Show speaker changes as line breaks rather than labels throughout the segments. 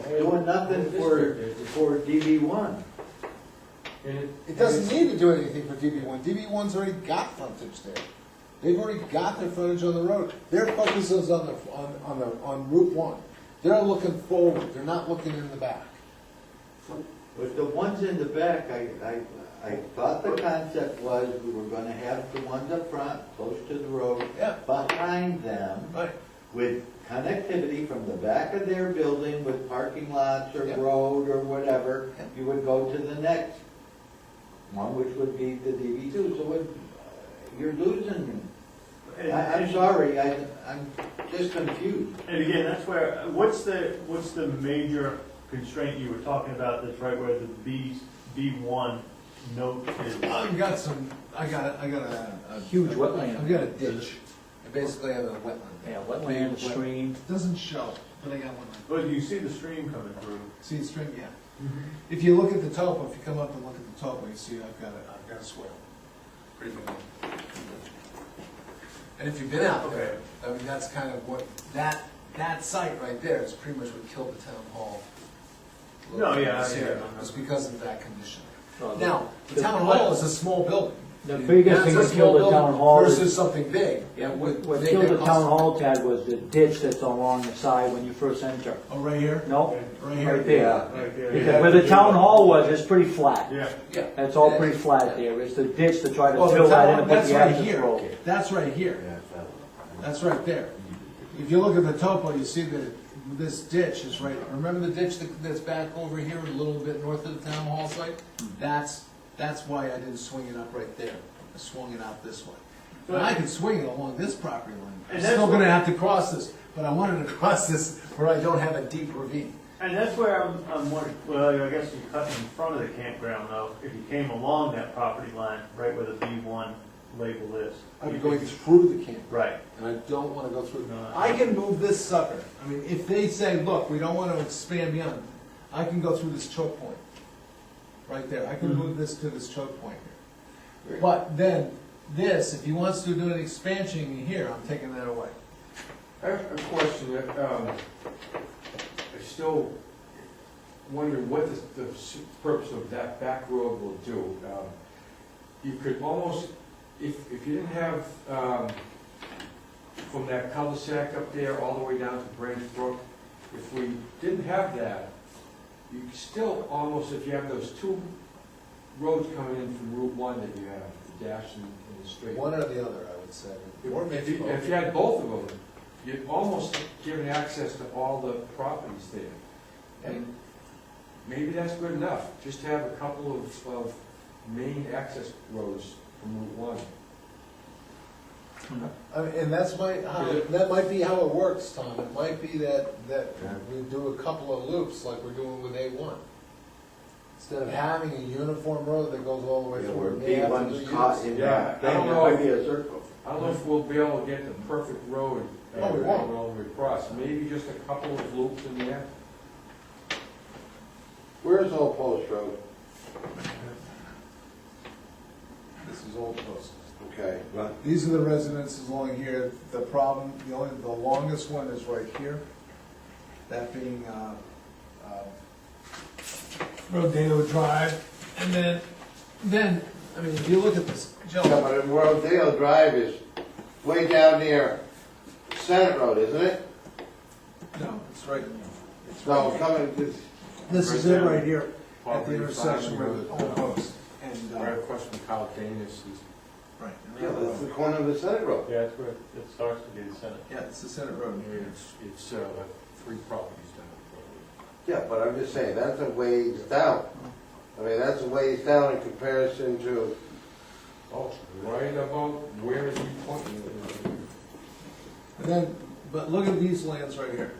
doing nothing for, for DB one.
It doesn't need to do anything for DB one, DB one's already got frontage there. They've already got their frontage on the road, their focus is on the, on, on the, on Route one. They're looking forward, they're not looking in the back.
But the ones in the back, I, I, I thought the concept was we were gonna have the ones up front, close to the road,
Yeah.
behind them,
Right.
with connectivity from the back of their building with parking lots or
Yeah.
road or whatever,
Yeah.
you would go to the next one, which would be the DB two, so it, you're losing. I, I'm sorry, I, I'm just confused.
And again, that's where, what's the, what's the major constraint you were talking about that's right where the B, B1 note is?
I've got some, I got, I got a. a-
Huge wetland.
I've got a ditch, I basically have a wetland.
Yeah, wetland, stream.
It doesn't show, but I got one.
Well, you see the stream coming through.
See the string, yeah.
Mm-hmm.
If you look at the topo, if you come up and look at the topo, you see I've got a, I've got a swale. Pretty big. one. And if you've been out there, I mean, that's kind of what, that, that site right there is pretty much what killed the town hall.
No, yeah, I- yeah, I know.
It's because of that condition.
Oh, the-
Now, the town hall is a small building.
The biggest thing
That's a
that killed the
small
town
building
hall is-
Versus something big.
Yeah,
that
what
would
what
make
killed
it
the town
possible.
hall, Ted, was the ditch that's along the side when you first enter.
Oh, right here?
No?
Right here.
Right there.
Right there.
Because Where the town hall was, it's pretty flat.
Yeah,
Yeah.
It's all pretty
Yeah.
flat there. It's the ditch to try to
Well,
fill
the
that in
town,
and put
that's
the
right
access
here,
road.
that's right here, that's right there. If you look at the topo, you see that this ditch is right, remember the ditch that- that's back over here, a little bit north of the town hall site?
Hmm.
That's, that's why I didn't swing it up right there, I swung it out this way. And I can swing it along this property line, I'm
And that's
still gonna
what-
have to cross this, but I wanted to cross this where I don't have a deep ravine.
and that's where I'm, I'm wondering, well, I guess you cut in front of the campground though, if you came along that property line, right where the B1 label is.
I'm going through the camp.
Right.
and I don't wanna go through.
No.
I can move this sucker, I mean, if they say, look, we don't wanna expand beyond, I can go through this choke point. Right there, I
Hmm.
can move this to this choke point here. But then, this, if he wants to do an expansion here, I'm taking that away.
I have a question that, um, I still wonder what the, the s- purpose of that back road will do. Um, You could almost, if, if you didn't have, um, from that cul-de-sac up there all the way down to Branch Brook, if we didn't have that, you could still almost, if you have those two roads coming in from Route One that you have, the dash and and the straight.
One or the other, I would say. Or
If
maybe
you, if
both.
you had both of them, you'd almost given access to all the properties there. And maybe that's good enough, just to have a couple of, of main access roads from Route One.
I mean, and that's my, how- that might be how it works, Tom, it might be that, that we do a couple of loops like we're doing with A one. Instead of having a uniform road that goes all the way
Where
through. we have to do
B1's
units.
caught in
Yeah,
that
I
thing,
don't
it
know.
might be a circle.
I don't know if we'll be able to get the perfect road uh,
Oh, we won't.
all the way across, maybe just a couple of loops in there.
Where's Old Post Road?
This is Old Post.
Okay, but
These are the residences along here, the problem, the only, the longest one is right here, that being, uh, uh, Rodeo Drive, and then, then, I mean, if you look at this,
Yeah,
Joe,
but in Worldale Drive is way down near Senate Road, isn't it?
no, it's right, it's right
So
here.
coming, this-
This is it right here, at the
Probably
intersection
fine,
with
uh,
Old Post, and, uh,
I have a question from Kyle Danis, he's
right. and the
yeah,
other
that's the
road.
corner of the Senate Road.
Yeah, that's where it starts to be the center.
Yeah, it's the Senate Road here.
It's, it's, uh, three properties down the
Yeah, but I'm just saying, that's a ways down. I mean, that's a ways down in comparison to,
road. Oh, right about where is he pointing?
And then, but look at these lands right here.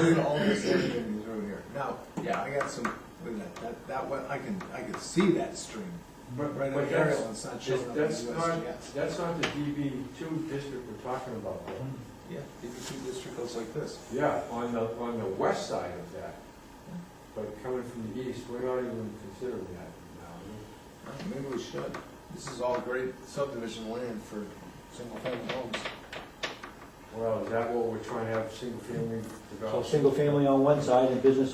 Look at all this land that's over here. Now, yeah, I got some, look at that, that, that one, I can, I can see that stream.
But-
Right
but
in the
that's-
aerial, it's not showing up in
That's
the
not,
USGS.
that's not the DB two district we're talking about. though.
Yeah, DB2 district goes like this.
Yeah, on the, on the west side of that, but coming from the east, we're not even considering that now.
Maybe we should. This is all great subdivision land for single-family homes.
Well, is that what we're trying to have, single family
So
development?
single family on one side and business